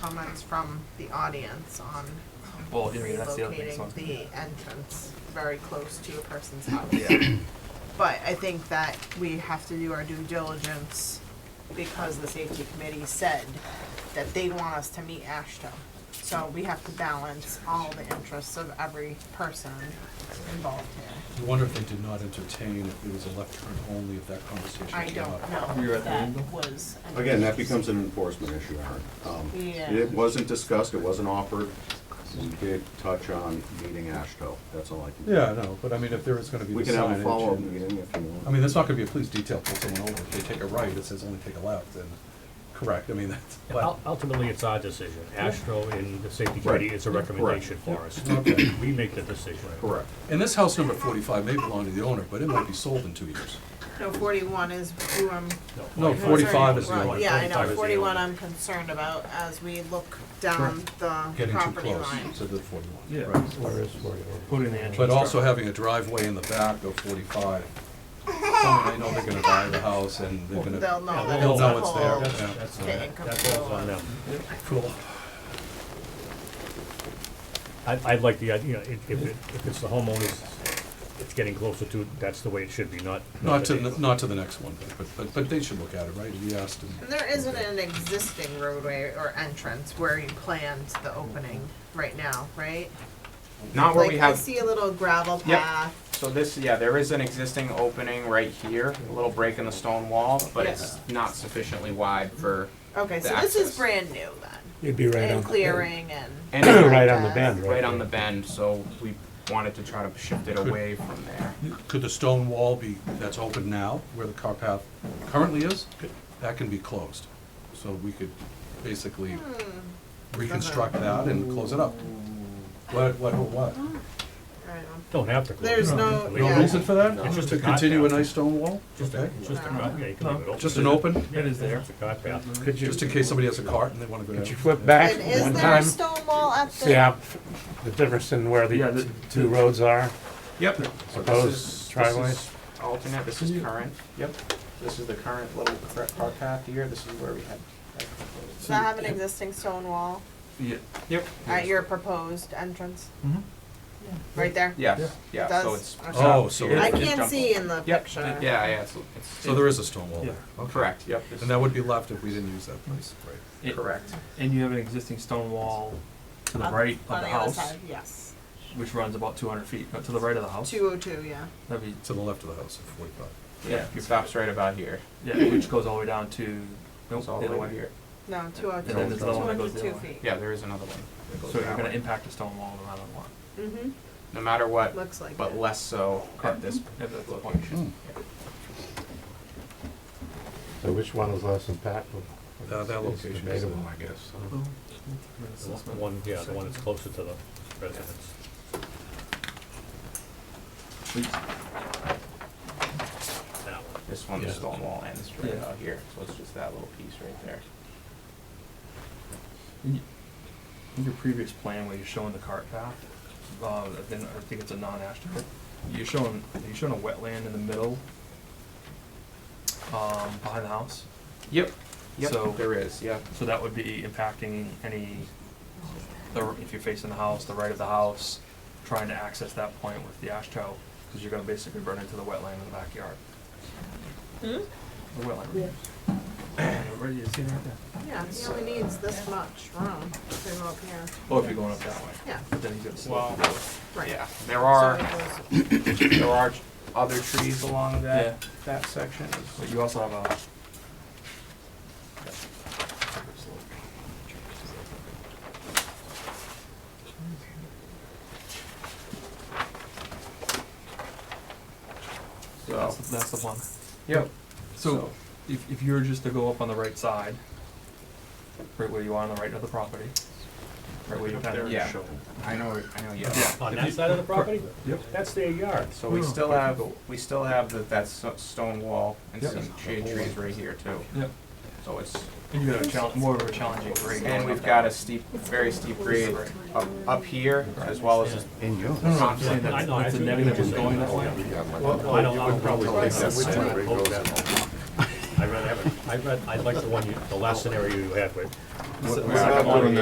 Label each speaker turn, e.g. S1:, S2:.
S1: comments from the audience on
S2: Well, I mean, Oh, that's the other thing, so.
S1: relocating the entrance very close to a person's house.
S2: Yeah,
S1: But I think that we have to do our due diligence because the safety committee said that they want us to meet Ashton. So we have to balance all the interests of every person involved here.
S3: I wonder if they did not entertain, if it was a left turn only, if that conversation
S1: I
S3: came up.
S1: don't know.
S2: We were
S1: if
S2: at the
S1: That
S2: meeting,
S1: was. an
S4: Again, that
S1: interest.
S4: becomes an enforcement issue, Aaron. Um,
S1: Yeah.
S4: It wasn't discussed, it wasn't offered. We did touch on meeting ASHTO, that's all I can.
S3: Yeah, no, but I mean, if there is gonna be
S4: We
S3: the
S4: can have a
S3: signage.
S4: follow-up
S3: and-
S4: meeting if you want.
S3: I mean, that's not gonna be a police detail pull someone over, if they take a right, it says only take a left, and, correct, I mean, that's, but,
S5: Ul- Ultimately, it's our decision. Astro and the safety committee,
S4: Right.
S5: it's a recommendation for us.
S3: okay.
S5: We make the decision.
S4: Correct.
S3: And this house number forty-five may belong to the owner, but it might be sold in two years.
S1: No, forty-one is who I'm.
S3: No,
S1: concerned-
S3: 45 is the
S1: right,
S3: only-
S1: Yeah, I
S5: 45 is
S1: know,
S5: the
S1: forty-one
S5: only.
S1: I'm concerned about as we look down the
S3: Getting too
S1: property
S3: close
S1: line.
S3: to the forty-one.
S2: Yeah.
S3: Right.
S2: put in the entrance.
S3: But also having a driveway in the back of forty-five, someone they know they're gonna buy the house and they're gonna.
S1: They'll know that
S3: They'll
S1: it's
S3: know
S1: a
S3: it's
S1: whole.
S3: there, yeah.
S5: That's,
S1: Okay,
S5: on-
S1: income
S5: that's what's on them.
S3: Cool.
S5: I, I like the, idea. you know, if, if it- if it's the homeowners, it's getting closer to, that's the way it should be, not.
S3: Not to,
S5: the-
S3: the- not to the next one, but, but, but they should look at it, right? We asked them.
S1: And there isn't an existing roadway or entrance where you planned the opening right now, right?
S6: Not where
S1: Like,
S6: we
S1: I
S6: have,
S1: see a little gravel
S6: Yep.
S1: path.
S6: so this, yeah, there is an existing opening right here, a little break in the stone wall, but it's not sufficiently wide for,
S1: Okay,
S6: The
S1: so this is
S6: access.
S1: brand new then,
S7: It'd be right on
S1: and
S7: the
S1: clearing and.
S6: and it's
S7: Right on the bend, right?
S6: right on the bend, so we wanted to try to shift it away from there.
S3: Could the stone wall be, that's open now, where the car path currently is? That can be closed. So we could basically reconstruct that and close it up. What, what, what?
S1: I don't know.
S5: Don't have to. close it.
S1: There's no-
S5: Leave it.
S3: No
S1: Yeah.
S3: reason for that?
S5: It's just
S3: To
S5: a cart
S3: continue a
S5: path.
S3: nice stone wall?
S5: Just a,
S3: Okay.
S5: just a, yeah, you can leave it open.
S3: Just an open,
S5: It is there. It's a car path.
S7: Could you,
S3: just in case somebody has a cart and they wanna go down?
S7: could you flip back
S1: And is
S7: one
S1: there a
S7: time?
S1: stone wall at the?
S7: See how, f- the difference in where the two roads are?
S6: Yep. So
S7: Opposed
S6: this is, this
S7: driveways?
S6: is alternate, this is current, yep. This is the current little cr- car path here, this is where we had.
S1: Does that have an existing stone wall
S6: Yep.
S1: at your proposed entrance?
S2: Mhm.
S1: Right there?
S6: Yes,
S1: It
S6: yeah,
S1: does?
S6: so it's.
S1: Okay.
S3: Oh, so,
S1: I
S6: It's
S1: can't
S6: jumbled.
S1: see in the
S6: Yep,
S1: picture.
S6: yeah, yeah, it's,
S3: so there is a stone wall there.
S6: it's, correct, yep. this
S3: And that would be left if we didn't use that place, right?
S6: is Correct.
S8: And you have an existing stone wall to the
S1: On-
S8: right
S1: On
S8: of
S1: the
S8: the
S1: other
S8: house,
S1: side, yes.
S8: which runs about two hundred feet, uh, to the right of the house.
S1: Two oh two, yeah.
S8: That'd be,
S3: To the left of the house, at forty-five.
S6: Yeah, it stops right about here.
S8: yeah, which goes all the way down to, nope,
S6: It's
S8: the
S6: all the
S8: other way.
S6: way to here.
S1: No, two oh two.
S8: And then there's another one that goes the other way.
S1: feet.
S6: Yeah, there is another one. that goes
S8: So you're
S6: that
S8: gonna
S6: way.
S8: impact the stone wall no matter what,
S1: Mm-hmm,
S6: No matter what,
S1: looks like
S6: but
S1: it.
S6: less so at this
S8: if that's the point.
S6: location.
S7: So which one is less impactful?
S3: Uh, that location is-
S7: It's debatable, I guess.
S5: The One, yeah, the one that's closer to the residence. That one.
S6: This one, the
S3: Yeah.
S6: stone wall ends right
S8: Yeah.
S6: out here, so it's just that little piece right there.
S8: In y- in your previous plan where you're showing the cart path, uh, then I think it's a non-asterisk, you're showing, you're showing a wetland in the middle, um, behind the house.
S6: Yep,
S8: So-
S6: yep, there is, yeah.
S8: So that would be impacting any, the, if you're facing the house, the right of the house, trying to access that point with the ash tow, because you're gonna basically run into the wetland in the backyard. The wetland. Right, you see it right there?
S1: Yeah, he only needs this much room to go up here.
S8: Or Oh, if you're going up that way,
S1: Yeah,
S8: but then he's gonna slope it.
S1: right.
S6: Yeah, there
S1: So
S6: are,
S1: it goes-
S6: there are other trees
S8: Yeah,
S6: along that, that section.
S8: but you also have a.
S6: So, Oh.
S8: That's, the- that's the one.
S6: yep,
S8: So, if, if you were just to go up on the right side, right where you are on the right of the property, right where you kind of.
S6: yeah. I know, I know, yeah.
S8: Yeah. Oh,
S5: On that side of the property?
S8: Yep.
S5: That's their yard.
S6: So we still have, we still have that, that s- stone wall and
S8: Yep.
S6: some shade trees right here too.
S8: Yep.
S6: So it's,
S8: And you got a challenge, more of a challenging grade.
S6: and
S8: going up
S6: we've
S8: that
S6: got
S8: way.
S6: a steep, very steep grade up, up here as well as this
S4: In yours.
S8: Saying that-
S5: I know, I
S8: that's a
S5: think
S8: negative
S5: you're
S8: is going that way.
S5: I don't, I would probably take that scenario. I'd rather have it, I'd rather, I'd like the one you, the last scenario you had with,
S9: Second
S8: We're not
S9: one.
S8: doing